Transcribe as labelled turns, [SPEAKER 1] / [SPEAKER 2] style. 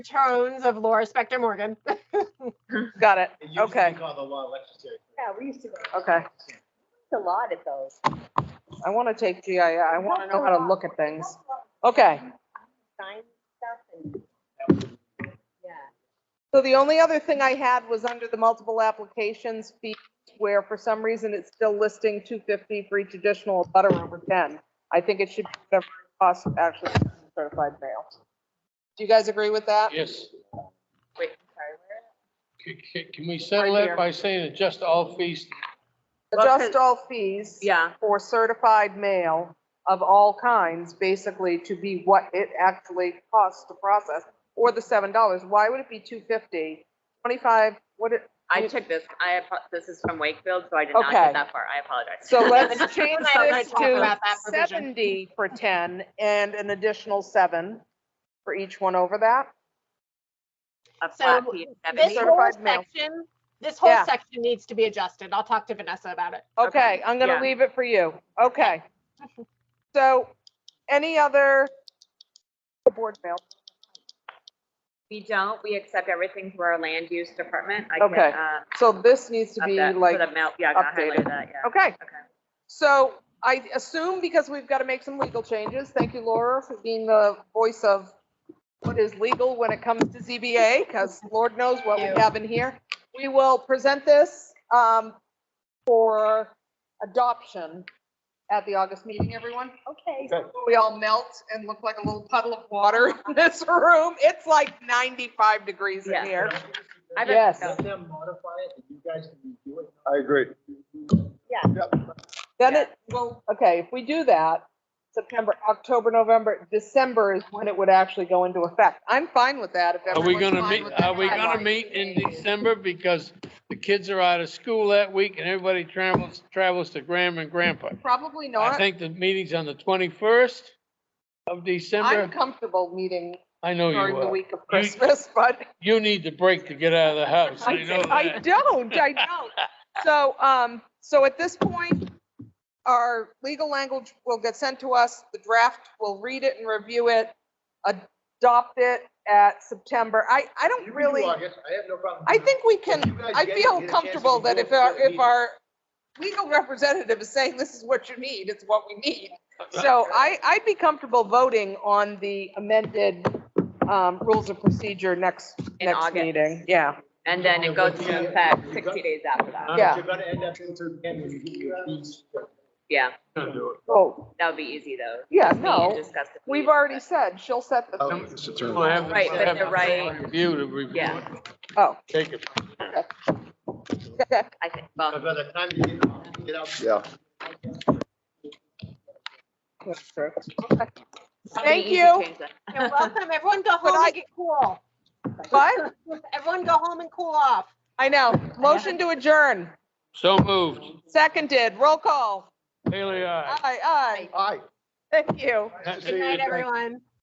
[SPEAKER 1] tones of Laura Spector Morgan.
[SPEAKER 2] Got it.
[SPEAKER 3] It used to
[SPEAKER 2] Okay.
[SPEAKER 3] be called the law lectures here.
[SPEAKER 4] Yeah, we used to go,
[SPEAKER 2] Okay.
[SPEAKER 4] it's a lot at those.
[SPEAKER 2] I want to take GIS. I want to know how to look at things. Okay.
[SPEAKER 4] Sign stuff and,
[SPEAKER 3] That was-
[SPEAKER 4] yeah.
[SPEAKER 2] So the only other thing I had was under the multiple applications fee, where for some reason it's still listing 250 for each additional butter over 10. I think it should be whatever it costs actually certified mail. Do you guys agree with that?
[SPEAKER 5] Yes.
[SPEAKER 4] Wait, sorry, where?
[SPEAKER 5] C- c- Can we settle
[SPEAKER 2] Right
[SPEAKER 5] that
[SPEAKER 2] here.
[SPEAKER 5] by saying adjust all fees?
[SPEAKER 2] Adjust all fees.
[SPEAKER 6] Yeah,
[SPEAKER 2] For certified mail of all kinds, basically to be what it actually costs to process, or the $7. Why would it be 250? 25, what it,
[SPEAKER 6] I took this, I, apo- this is from Wakefield, so I did not
[SPEAKER 2] Okay.
[SPEAKER 6] get that far, I apologize.
[SPEAKER 2] So let's
[SPEAKER 1] Let's
[SPEAKER 2] change
[SPEAKER 1] talk
[SPEAKER 2] this to
[SPEAKER 1] about that provision.
[SPEAKER 2] seventy for ten and an additional seven for each one over that.
[SPEAKER 6] A
[SPEAKER 1] So
[SPEAKER 6] flat fee of
[SPEAKER 1] This
[SPEAKER 6] 70.
[SPEAKER 1] whole
[SPEAKER 2] Certified mail.
[SPEAKER 1] section, this whole
[SPEAKER 2] Yeah.
[SPEAKER 1] section needs to be adjusted. I'll talk to Vanessa about it.
[SPEAKER 2] Okay, I'm gonna
[SPEAKER 6] yeah.
[SPEAKER 2] leave it for you. Okay. So any other board mail?
[SPEAKER 6] We don't, we accept everything through our land use department. I can,
[SPEAKER 2] Okay.
[SPEAKER 6] uh,
[SPEAKER 2] So this needs to
[SPEAKER 6] up
[SPEAKER 2] be
[SPEAKER 6] that-
[SPEAKER 2] like,
[SPEAKER 6] put a mel- Yeah, I
[SPEAKER 2] updated.
[SPEAKER 6] highlighted that, yeah.
[SPEAKER 2] okay.
[SPEAKER 6] Okay.
[SPEAKER 2] So I assume because we've got to make some legal changes. Thank you, Laura, for being the voice of what is legal when it comes to ZBA, because Lord knows what we
[SPEAKER 1] Thank you.
[SPEAKER 2] have in here. We will present this um, for adoption at the August meeting, everyone.
[SPEAKER 4] Okay,
[SPEAKER 2] We all melt and look like a little puddle of water in this room. It's like 95 degrees in
[SPEAKER 6] Yeah.
[SPEAKER 2] here.
[SPEAKER 6] I bet-
[SPEAKER 2] Yes.
[SPEAKER 3] Let them modify it and you guys can do it.
[SPEAKER 7] I agree.
[SPEAKER 4] yeah.
[SPEAKER 2] Then it, well, okay, if we do that, September, October, November, December is when it would actually go into effect. I'm fine with that if
[SPEAKER 5] Are we
[SPEAKER 2] everyone's
[SPEAKER 5] gonna
[SPEAKER 2] fine
[SPEAKER 5] meet,
[SPEAKER 2] with that.
[SPEAKER 5] are we gonna
[SPEAKER 2] timeline.
[SPEAKER 5] meet in December because the kids are out of school that week and everybody travels, travels to grandma and grandpa?
[SPEAKER 2] Probably
[SPEAKER 5] I
[SPEAKER 2] not.
[SPEAKER 5] think the meeting's on the twenty-first of
[SPEAKER 2] I'm
[SPEAKER 5] December.
[SPEAKER 2] comfortable meeting
[SPEAKER 5] I know Oh, you
[SPEAKER 2] during the
[SPEAKER 5] will.
[SPEAKER 2] week of Christmas, but
[SPEAKER 5] You need the break to get out of the house. I know
[SPEAKER 2] I
[SPEAKER 5] that.
[SPEAKER 2] don't, I don't. So, um, so at this point, our legal language will get sent to us, the draft, we'll read it and review it, adopt it at September. I, I
[SPEAKER 3] You
[SPEAKER 2] don't
[SPEAKER 3] can do
[SPEAKER 2] really.
[SPEAKER 3] August, I have no problem.
[SPEAKER 2] I think we can,
[SPEAKER 3] You guys
[SPEAKER 2] I
[SPEAKER 3] get-
[SPEAKER 2] feel
[SPEAKER 3] get a chance to
[SPEAKER 2] comfortable that
[SPEAKER 3] review
[SPEAKER 2] if
[SPEAKER 3] it
[SPEAKER 2] our,
[SPEAKER 3] before the
[SPEAKER 2] if our legal representative is saying this is what you need, it's what we need. So I, I'd be comfortable voting on the amended, um, rules of procedure next,
[SPEAKER 6] In
[SPEAKER 2] next
[SPEAKER 6] August.
[SPEAKER 2] meeting. Yeah,
[SPEAKER 6] And then it goes to effect sixty days after that.
[SPEAKER 5] Uh-huh.
[SPEAKER 3] Um,
[SPEAKER 2] yeah.
[SPEAKER 3] You're gonna end up into, again, when you get your fees.
[SPEAKER 6] Yeah,
[SPEAKER 2] Oh,
[SPEAKER 6] that would be easy though.
[SPEAKER 2] Yeah,
[SPEAKER 6] Just me and
[SPEAKER 2] no,
[SPEAKER 6] discuss the
[SPEAKER 2] we've
[SPEAKER 6] fees,
[SPEAKER 2] already
[SPEAKER 6] but-
[SPEAKER 2] said, she'll set the,
[SPEAKER 7] Oh, it's a turn.
[SPEAKER 5] We'll have the-
[SPEAKER 6] Right, but
[SPEAKER 5] have
[SPEAKER 6] the
[SPEAKER 5] the
[SPEAKER 6] right-
[SPEAKER 5] Review to review.
[SPEAKER 6] Yeah.
[SPEAKER 2] oh.
[SPEAKER 5] Take it.
[SPEAKER 6] I think, well.
[SPEAKER 3] By the time you get, get out.
[SPEAKER 7] Yeah.
[SPEAKER 2] that's true.
[SPEAKER 6] it'll be
[SPEAKER 2] Thank
[SPEAKER 6] easy
[SPEAKER 2] you.
[SPEAKER 6] change that.
[SPEAKER 1] You're welcome. Everyone go
[SPEAKER 2] But
[SPEAKER 1] home
[SPEAKER 2] I-
[SPEAKER 1] and get cool.
[SPEAKER 2] What?
[SPEAKER 1] Everyone go home and cool off.
[SPEAKER 2] I know. Motion to adjourn.
[SPEAKER 5] So moved.
[SPEAKER 2] Seconded. Roll call.
[SPEAKER 5] Haley, uh, aye.
[SPEAKER 2] Aye, aye.
[SPEAKER 7] Aye.
[SPEAKER 2] Thank you.
[SPEAKER 1] Good night, everyone.